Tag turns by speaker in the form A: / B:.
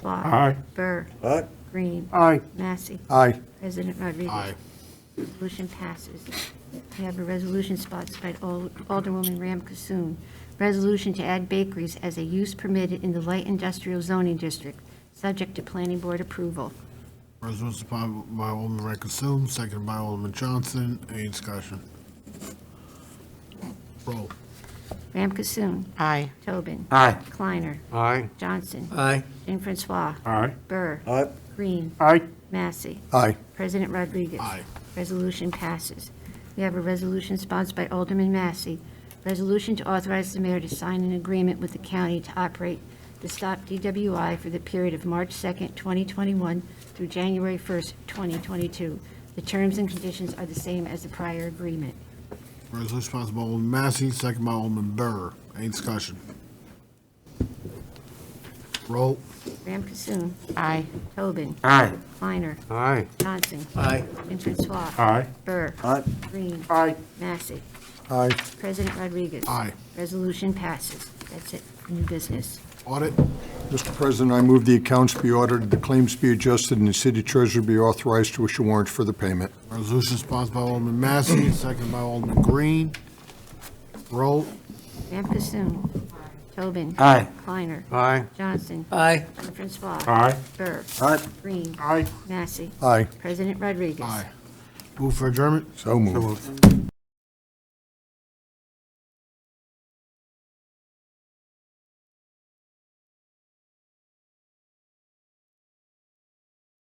A: Block.
B: Aye.
A: Burr.
C: Aye.
A: Green.
B: Aye.
A: Massey.
C: Aye.
A: President Rodriguez. Resolution passes. We have a resolution sponsored by Al- Alderwoman Ram Kasoon. Resolution to add bakeries as a use permitted in the light industrial zoning district, subject to planning board approval.
D: Resolution sponsored by Alderman Rankine-Sum, seconded by Alderman Johnson. Any discussion? Roll.
A: Ram Kasoon.
E: Aye.
A: Tobin.
C: Aye.
A: Kleiner.
B: Aye.
A: Johnson.
C: Aye.
A: Jean Francois.
B: Aye.
A: Burr.
C: Aye.
A: Green.
B: Aye.
A: Massey.
C: Aye.
A: President Rodriguez.
D: Aye.
A: Resolution passes. We have a resolution sponsored by Alderman Massey. Resolution to authorize the mayor to sign an agreement with the county to operate the Stop DWI for the period of March 2nd, 2021 through January 1st, 2022. The terms and conditions are the same as the prior agreement.
D: Resolution sponsored by Alderman Massey, seconded by Alderman Burr. Any discussion? Roll.
A: Graham Consoom.
E: Aye.
A: Tobin.
C: Aye.
A: Kleiner.
B: Aye.
A: Johnson.
C: Aye.
A: And Francois.
B: Aye.
A: Burr.
C: Aye.
A: Green.
B: Aye.
A: Massey.
C: Aye.
A: President Rodriguez.
D: Aye.
A: Resolution passes. That's it. New business.
D: Audit.
F: Mr. President, I move the accounts be audited, the claims be adjusted, and the city treasurer be authorized to issue warrants for the payment.
D: Resolution sponsored by Alderman Massey, seconded by Alderman Green. Roll.
A: Graham Consoom. Tobin.
C: Aye.
A: Kleiner.
B: Aye.
A: Johnson.
C: Aye.
A: Francois.
B: Aye.
A: Burr.
C: Aye.
A: Green.
B: Aye.
A: Massey.
F: Aye.
A: President Rodriguez.
D: Aye. Move for adjournment.
F: So moved.